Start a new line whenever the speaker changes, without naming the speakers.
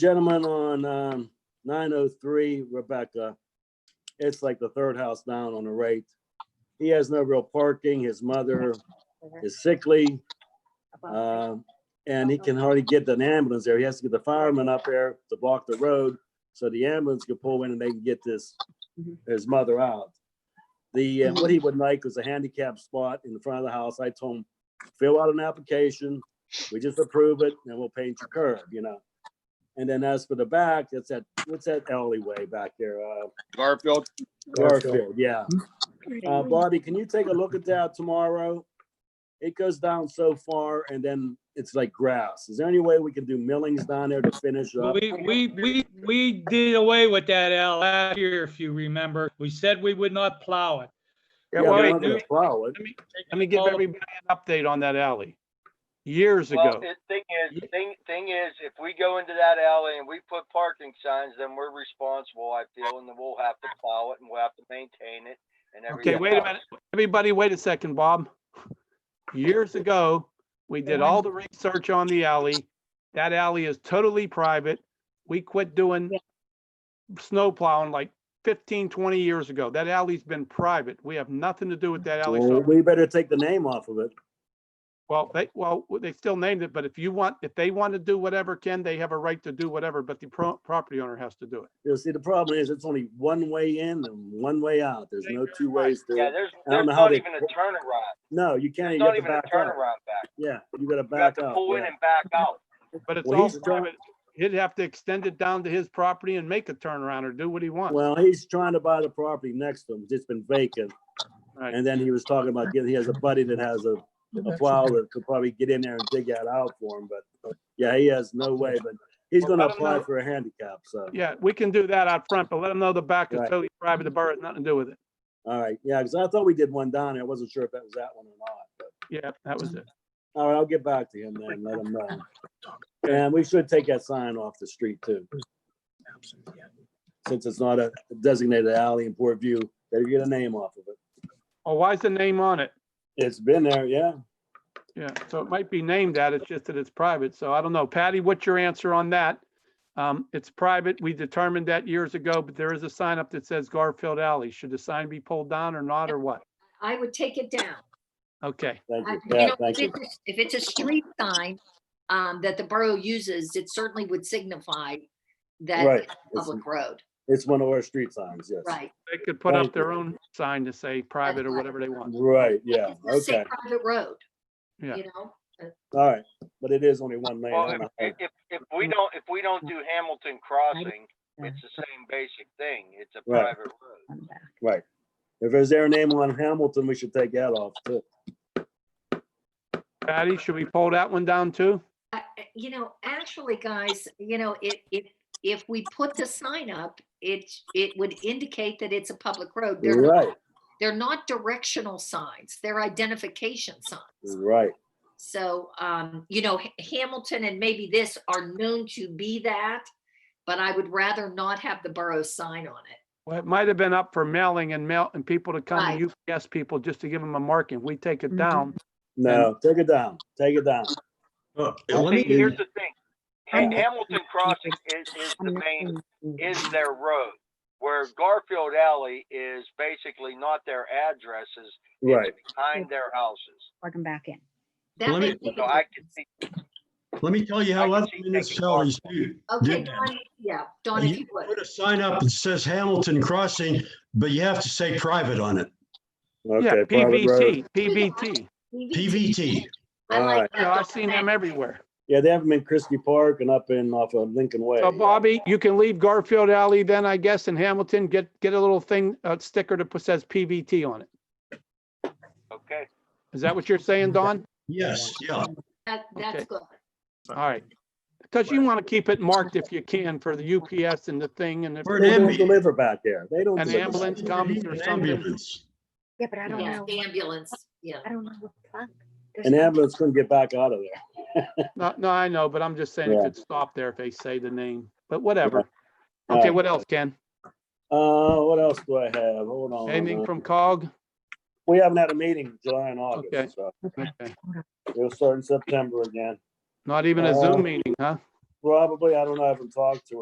gentleman on um, 903 Rebecca. It's like the third house down on the right. He has no real parking. His mother is sickly. um, And he can hardly get an ambulance there. He has to get the fireman up there to block the road so the ambulance can pull in and they can get this, his mother out. The, uh, what he would like was a handicap spot in the front of the house. I told him, fill out an application. We just approve it and we'll paint your curb, you know? And then as for the back, it's that, what's that alleyway back there? Uh,
Garfield,
Garfield, yeah. Uh, Bobby, can you take a look at that tomorrow? It goes down so far and then it's like grass. Is there any way we can do millings down there to finish up?
We, we, we, we did away with that, Al, last year, if you remember. We said we would not plow it.
Yeah,
Yeah, well,
we're
wait,
not gonna
let me-
plow it.
let me give
All of-
everybody an update on that alley. Years
Well,
ago,
the thing is, thing, thing is, if we go into that alley and we put parking signs, then we're responsible, I feel, and then we'll have to plow it and we'll have to maintain it and everything.
okay, wait a
else.
minute, everybody, wait a second, Bob. Years ago, we did all the research on the alley. That alley is totally private. We quit doing snow plowing like 15, 20 years ago. That alley's been private. We have nothing to do with that alley.
Well,
So
We better take the name off of it.
Well, they, well, they still named it, but if you want, if they want to do whatever, Ken, they have a right to do whatever, but the pro- property owner has to do it.
You see, the problem is it's only one way in and one way out. There's no two ways
Yeah,
to,
there's,
I don't
there's
know how
not
they-
even a turnaround.
no, you can't,
There's
you
not
got to
even a
back up.
turnaround back.
Yeah, you gotta
You have
back
to
up.
pull in
yeah.
and back out.
But it's
Well,
all
he's trying-
private. He'd have to extend it down to his property and make a turnaround or do what he wants.
Well, he's trying to buy the property next to him. It's been vacant.
Right.
And then he was talking about getting, he has a buddy that has a, a plow that could probably get in there and dig that out for him, but yeah, he has no way, but he's
Well,
gonna
I don't
apply
know.
for a handicap, so.
Yeah, we can do that out front, but let them know the back is
Right.
totally private. The borough has nothing to do with it.
All right, yeah, because I thought we did one down there. I wasn't sure if that was that one or not, but,
Yeah, that was it.
all right, I'll get back to him then, let him know. And we should take that sign off the street too. Since it's not a designated alley in Port View, better get a name off of it.
Oh, why's the name on it?
It's been there, yeah.
Yeah, so it might be named that, it's just that it's private, so I don't know. Patty, what's your answer on that? Um, it's private, we determined that years ago, but there is a sign up that says Garfield Alley. Should the sign be pulled down or not, or what?
I would take it down.
Okay,
Thank
I-
you.
you
Yeah,
know,
thank you.
If it's- if it's a street sign um, that the borough uses, it certainly would signify that
Right.
it's a
It's-
public road,
It's one of our street signs, yes.
right?
they could put up
Thank you.
their own sign to say private or
right.
whatever they want.
Right, yeah,
It's a
okay,
private road,
Yeah.
you know?
all right, but it is only one lane.
Well,
I
if,
don't know.
if, if- if we don't, if we don't do Hamilton Crossing, it's the same basic thing. It's a
Right.
private road.
Right. If there's their name on Hamilton, we should take that off too.
Patty, should we pull that one down too?
I- I- You know, actually, guys, you know, if, if, if we put the sign up, it, it would indicate that it's a public road. They're
Right,
not, they're not directional signs, they're identification signs.
right,
So, um, you know, Ha- Hamilton and maybe this are known to be that, but I would rather not have the borough sign on it.
Well, it might have been up for mailing and mail, and people to
Right.
come, UPS people, just to give them a marking. We take
Mm-hmm.
it down.
no, take it down, take it down.
Well, Uh, let
See,
me,
here's the thing. Ha- Hamilton Crossing is, is the main, is their road. Where Garfield Alley is basically not their addresses,
Right,
behind their houses.
Plug 'em back in.
That
Let
may
me-
be
So
the-
I can see,
let me tell you how
I can
other
see taking
municipalities
part.
do.
Okay,
did that.
Don, yeah, Don, if
You
you would,
Put a sign up that says Hamilton Crossing, but you have to say private on it,
Yeah,
okay. private road.
PVT, PVT.
PVT.
I
All
like
right.
that.
Yeah, I've
Don,
seen them
thank-
everywhere.
Yeah, they have them in Christie Park and up in off of Lincoln Way.
So Bobby, you can leave Garfield Alley then, I guess, in Hamilton, get, get a little thing, a sticker that put- says PVT on it.
okay,
Is that what you're saying,
Mm-hmm.
Don?
Yes, yeah.
That, that's
Okay.
good.
All right. Because you want to keep it marked if you can for the UPS and the thing and the,
Or an
They don't
ambulance.
deliver back there. They don't.
An
deliver back
ambulance
there.
comes or
An
something.
ambulance.
Yeah, but I don't
Yeah,
know,
the ambulance, yeah.
I don't know what plug. There's
An
no-
ambulance couldn't get back out of there.
no, no, I know, but I'm just saying
Yeah.
it could stop there if they say the name, but whatever.
All
Okay,
right.
what else, Ken?
Uh, what else do I have? Hold on. Uh,
Anything from COG?
We haven't had a meeting July and
Okay.
August, so
Okay.
we'll start in September again.
Not even a
Uh,
Zoom meeting, huh?
Probably, I don't know, I haven't talked to her.